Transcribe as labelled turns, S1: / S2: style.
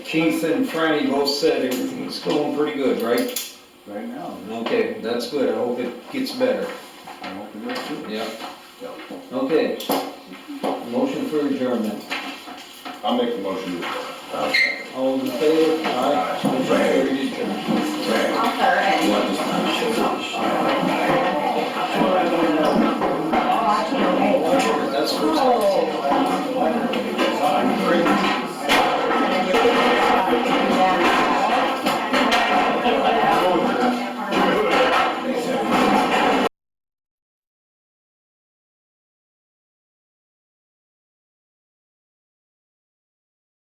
S1: Keith and Franny both said everything's going pretty good, right?
S2: right now,
S1: Okay, that's good, I hope it gets better,
S2: I hope it does too.
S1: yeah. Okay. Motion for adjournment.
S3: I'll make the motion.
S1: All in favor? Aye. Motion carried, adjourned.
S4: I'll throw it.
S3: What is that?